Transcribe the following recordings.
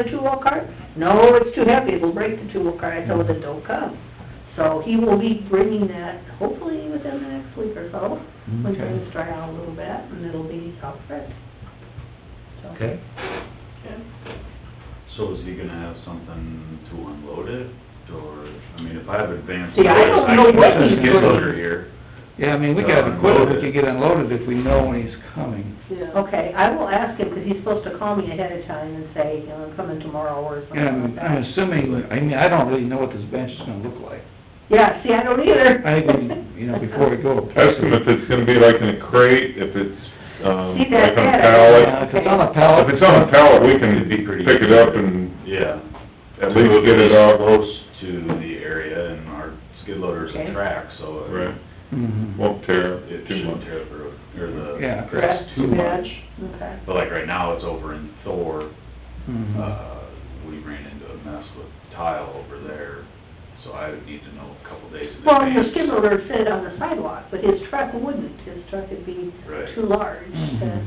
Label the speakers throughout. Speaker 1: a two-wheel cart? No, it's too heavy, it'll break the two-wheel cart, I told him, don't come. So he will be bringing that hopefully within the next week or so, when
Speaker 2: Mm-hmm. Okay.
Speaker 1: things dry out a little bit, and it'll be all set. So-
Speaker 2: Okay.
Speaker 3: So is he gonna have something to unload it, or, I mean, if I have advanced
Speaker 1: See, I
Speaker 3: notice,
Speaker 1: don't
Speaker 3: I
Speaker 1: know
Speaker 3: can
Speaker 1: what
Speaker 3: send a
Speaker 1: he's
Speaker 3: skid
Speaker 1: doing.
Speaker 3: loader here.
Speaker 2: Yeah, I mean, we
Speaker 3: Uh,
Speaker 2: got equipment, we
Speaker 3: unloaded.
Speaker 2: could get unloaded if we know when he's coming.
Speaker 4: Yeah.
Speaker 1: Okay, I will ask him, because he's supposed to call me ahead of time and say, you know, I'm coming tomorrow or something like
Speaker 2: And I'm
Speaker 1: that.
Speaker 2: assuming, I mean, I don't really know what this bench is gonna look like.
Speaker 1: Yeah, see, I don't either.
Speaker 2: I think, we- you know, before we go.
Speaker 5: Estimate that's gonna be like in a crate, if it's, um,
Speaker 1: See, that-
Speaker 5: like on a
Speaker 1: that- uh,
Speaker 2: Yeah,
Speaker 5: pallet.
Speaker 2: if it's on a pallet.
Speaker 5: If it's on a pallet, we can
Speaker 3: It'd be pretty
Speaker 5: pick it up and
Speaker 3: Yeah,
Speaker 5: at least get it out close,
Speaker 3: to the area, and our skid loader's
Speaker 1: Okay.
Speaker 3: a track, so it-
Speaker 5: right,
Speaker 2: Mhm.
Speaker 5: won't tear
Speaker 3: it
Speaker 5: too
Speaker 3: shouldn't
Speaker 5: much.
Speaker 3: tear up the road, or
Speaker 2: Yeah.
Speaker 3: the
Speaker 1: Correct.
Speaker 3: grass too much.
Speaker 1: Okay.
Speaker 3: But like right now, it's over in Thor,
Speaker 2: Mhm.
Speaker 3: uh, we ran into a mess with tile over there, so I would need to know a couple days in
Speaker 1: Well, your
Speaker 3: advance.
Speaker 1: skid loader sit on the sidewalk, but his truck wouldn't, his truck would be
Speaker 3: Right.
Speaker 1: too large to
Speaker 2: Mhm.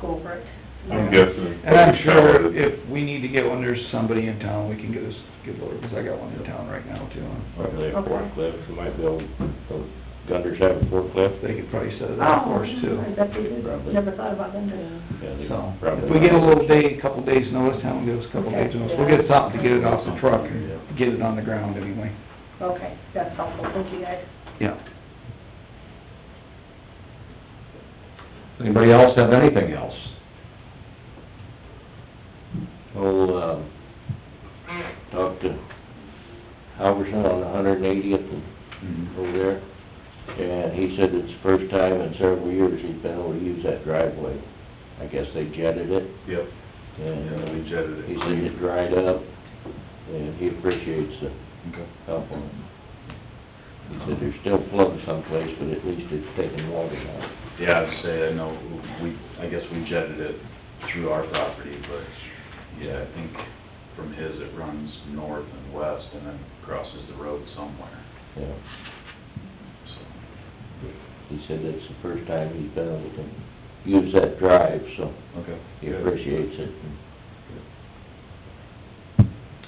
Speaker 1: go over it.
Speaker 5: I'm guessing.
Speaker 2: And I'm sure if we need to get one, there's somebody in town, we can get us, get loaded, because I got one in town right now
Speaker 5: Oh,
Speaker 2: too.
Speaker 6: Probably a
Speaker 1: Okay.
Speaker 6: forklift, you might be able, those gunners have a forklift.
Speaker 2: They could probably set it up for us
Speaker 1: Oh,
Speaker 2: too.
Speaker 1: I bet they did,
Speaker 6: Probably.
Speaker 1: never thought about them, did
Speaker 6: Yeah, they
Speaker 2: So,
Speaker 6: probably-
Speaker 2: if we get a little day, a couple days notice, town give us a couple days notice, we'll get something to get it off the truck and get it on the ground anyway.
Speaker 1: Okay, that's helpful, thank you guys.
Speaker 2: Yeah.
Speaker 7: Anybody else have anything else?
Speaker 6: Well, um, talked to Halverson on the hundred and eightieth and
Speaker 3: Mhm.
Speaker 6: over there, and he said it's the first time in several years he's been able to use that driveway. I guess they jetted it,
Speaker 3: Yep, yeah, we
Speaker 6: and uh,
Speaker 3: jetted it.
Speaker 6: he said it dried up, and he appreciates the
Speaker 3: Okay.
Speaker 6: help on it. He said there's still flooding someplace, but at least it's taking water out.
Speaker 3: Yeah, I'd say, I know, we, I guess we jetted it through our property, but, yeah, I think from his, it runs north and west and then crosses the road somewhere,
Speaker 6: Yeah.
Speaker 3: so,
Speaker 6: He said it's the first time he's been able to use that drive, so
Speaker 3: okay.
Speaker 6: he appreciates it.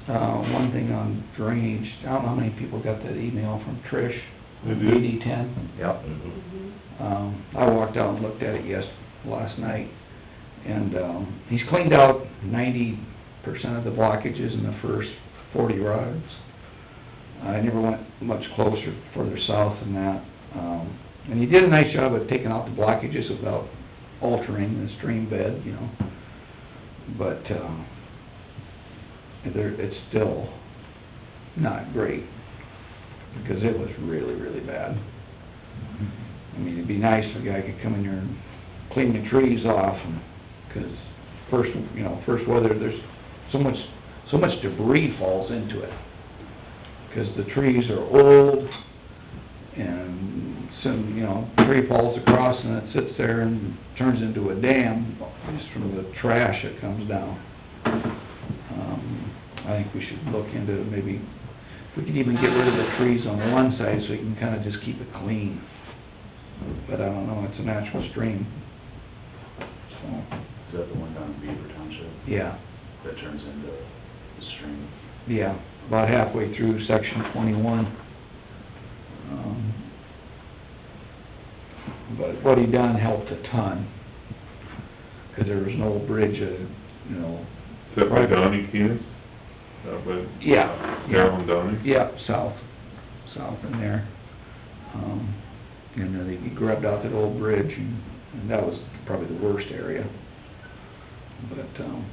Speaker 2: Uh, one thing on drainage, I don't know how many people got that email from Trish,
Speaker 5: They did.
Speaker 2: DD ten.
Speaker 7: Yep.
Speaker 6: Mm-hmm.
Speaker 2: Um, I walked out and looked at it yes, last night, and, um, he's cleaned out ninety percent of the blockages in the first forty rods. I never went much closer, further south than that, um, and he did a nice job of taking out the blockages without altering the stream bed, you know. But, um, there, it's still not great, because it was really, really bad. I mean, it'd be nice if a guy could come in here and clean the trees off, and, 'cause first, you know, first weather, there's so much, so much debris falls into it. 'Cause the trees are old, and soon, you know, tree falls across and it sits there and turns into a dam, just from the trash that comes down. Um, I think we should look into maybe, if we could even get rid of the trees on one side so we can kinda just keep it clean. But I don't know, it's a natural stream. So,
Speaker 3: Is that the one down in Beaver Township
Speaker 2: yeah,
Speaker 3: that turns into the stream?
Speaker 2: yeah, about halfway through section twenty-one. Um, But what he done helped a ton, 'cause there was an old bridge, uh, you know,
Speaker 5: Except for Donnie Keenan, that way.
Speaker 2: Yeah, yeah.
Speaker 5: Carolyn Donnie.
Speaker 2: Yep, south, south in there. Um, and then he grubbed out that old bridge, and, and that was probably the worst area. But, um,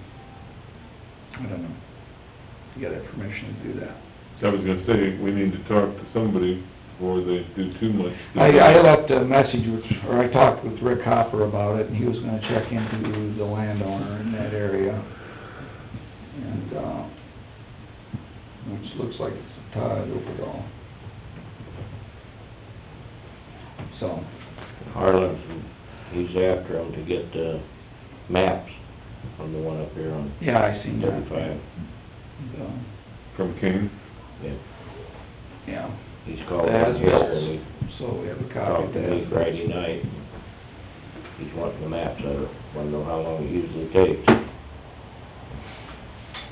Speaker 2: I don't know. You gotta have permission to do that.
Speaker 5: I was gonna say, we need to talk to somebody before they do too much.
Speaker 2: I, I left a message, with- or I talked with Rick Hopper about it, and he was gonna check into the landowner in that area. And, uh, which looks like it's Todd Opagal. So,
Speaker 6: Harlan, he's after him to get the maps from the one up here on
Speaker 2: yeah, I seen that.
Speaker 6: thirty-five.
Speaker 2: So,
Speaker 5: From Kane,
Speaker 6: Yeah,
Speaker 2: Yeah,
Speaker 6: he's called
Speaker 2: That's
Speaker 6: in here and he
Speaker 2: so we have a copy
Speaker 6: talked
Speaker 2: of
Speaker 6: to me
Speaker 2: that.
Speaker 6: Friday night. He's wanting the maps, I wanna know how long it usually takes.